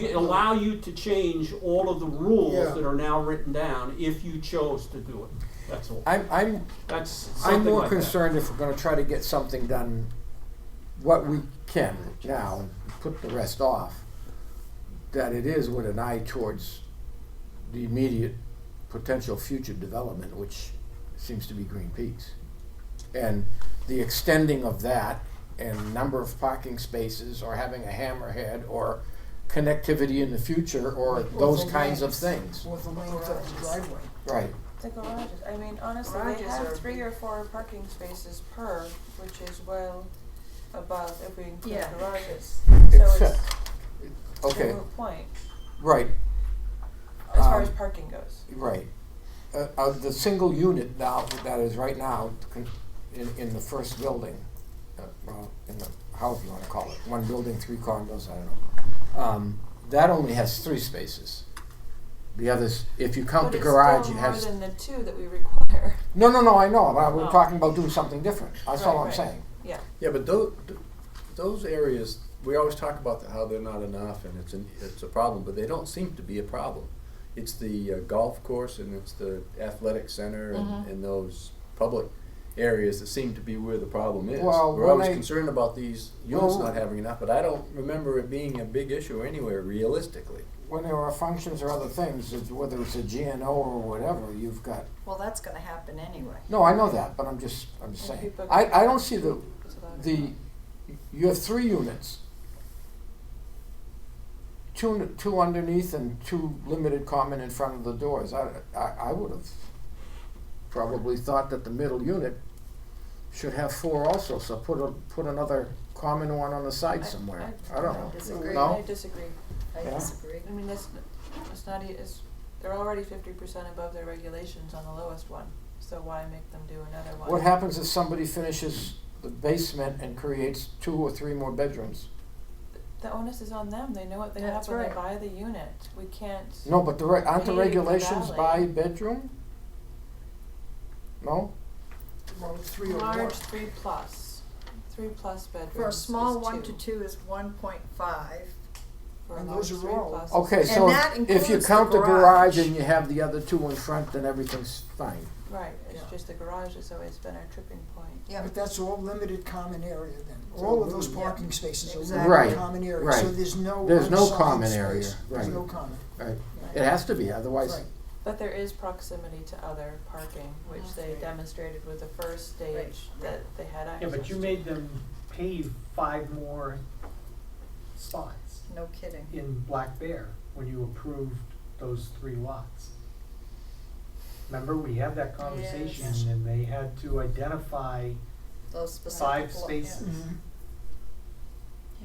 you, allow you to change all of the rules Yeah. that are now written down if you chose to do it. That's all. I'm, I'm, That's something I'm more like that. concerned if we're gonna try to get something done, what we can now, and put the rest off, that it is with an eye towards the immediate potential future development, which seems to be Green Peaks. And the extending of that and number of parking spaces or having a hammerhead or connectivity in the future or those the kinds of lanes. things. With the lanes up the driveway. Right. The garages, I mean, honestly, they Garages are- have three or four parking spaces per, which is well above if we include Yeah. garages. So Except- it's a uh, Okay, moot point, right. as far Um, as parking goes. Right. Uh, uh, the single unit now, that is right now, con- in, in the first building, uh, well, in the, however you wanna call it, one building, three condos, I don't know. Um, that only has three spaces. The others, if you count the garage, it has. But it's still more than the two that we require, No, no, no, I know, but Oh. we're talking about doing something different, that's all Right, I'm right. saying. yeah. Yeah, but those, those areas, we always talk about the- how they're not enough and it's, an, it's a problem, but they don't seem to be a problem. It's the uh, golf course and it's the athletic center and, Mhm. and those public areas that seem to be where the problem is. Well, We're when always I- concerned about these units Well- not having enough, but I don't remember it being a big issue anywhere realistically. When there are functions or other things, it's- whether it's a GNO or whatever, you've got, Well, that's gonna happen anyway. no, I know that, but I'm just, I'm just And saying. people- I, I don't see the, it's allowed. the, you have three units. Two, two underneath and two limited common in front of the doors. I, I, I would have probably thought that the middle unit should have four also, so put a, put another common one on the side I- somewhere. I- I don't I know. disagree. I No? disagree, I Yeah. disagree. I mean, that's, it's not, e- it's, they're already fifty percent above their regulations on the lowest one, so why make them do another one? What happens if somebody finishes the basement and creates two or three more bedrooms? The onus is on them, they know what they have That's when they right. buy the unit, we can't, No, but the, reg- aren't the Paved the regulations by valley. bedroom? No? Well, it's three or more. large three plus, three plus bedrooms For a small is one to two is one point five. For a And large those three are all- plus. is- Okay, so that if- if you includes the count the garage garage. and you have the other two in front, then everything's fine. Right, it's Yeah. just the garage has always been our tripping point. Yeah. But that's all limited common area then. All of those Yeah. parking spaces are Exactly. limited Right, common area, right. so there's no There's no unsigned common space. area, There's right. no common, Right. Right. It has to be, otherwise, right. But there is proximity to other parking, which they demonstrated with the first Right. stage that they had access Yeah, but you to. made them pave five more spots No kidding. in Black Bear when you approved those three lots. Remember, we had that conversation Yes. and they had to identify, Those specific. Five lo- spaces. yeah. Mm-hmm.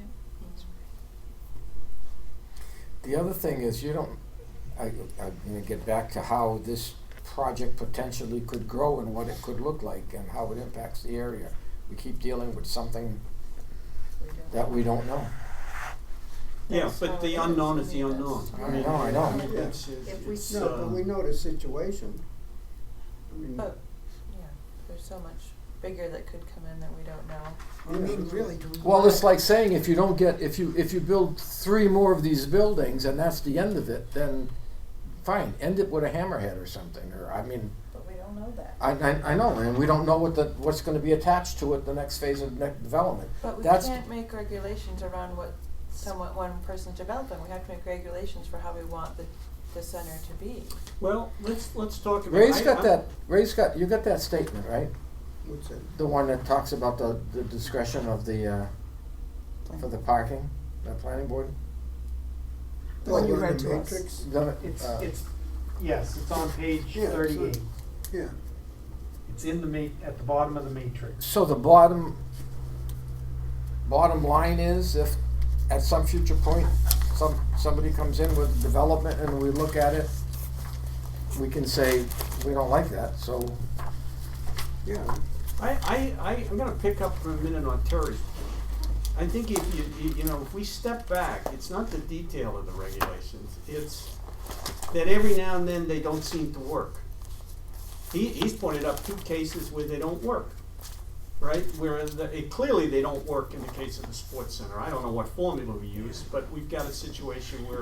the other thing is, you don't, I, I'm gonna get back to how this project potentially could grow and what it could look like and how it impacts the area. We keep dealing with something We don't- that we don't know. Yeah, That's how but the it is. unknown is I the mean, unknown. that's- I know, I know. mean, it's- If we it's, No, uh, but we know the situation. I mean, But, yeah, there's so much bigger that could come in that we don't know. I mean, really, do we Well, want it's like saying if you don't get, if you, if you build three more of these buildings and that's the end of it, then fine, end it with a hammerhead or something, or, I mean, But we don't know that. I, I, I know, and we don't know what the, what's gonna be attached to it, the next phase of next development. But we That's- can't make regulations around what someone, one person's developing, we have to make regulations for how we want the, the center to be. Well, let's, let's talk about. Ray's I- got I'm- that, Ray's got, you got that statement, right? what's that? The one that talks about the, the discretion of the, uh, for the parking, the planning board? The Well, one you on read the to us. matrix? The- it's, uh, it's, yes, it's on page Yeah, it's thirty-eight. Yeah, It's in the ma- at the bottom of the matrix. So the bottom, bottom line is if at some future point, some, somebody comes in with development and we look at it, we can say, we don't like that, so, yeah. I, I, I, I'm gonna pick up for a minute on Terry's. point. I think if you, you, you know, if we step back, it's not the detail of the regulations, it's that every now and then they don't seem to work. He, he's pointed up two cases where they don't work, right? Where the, it, clearly they don't work in the case of the sports center. I don't know what formula we use, but we've got a situation where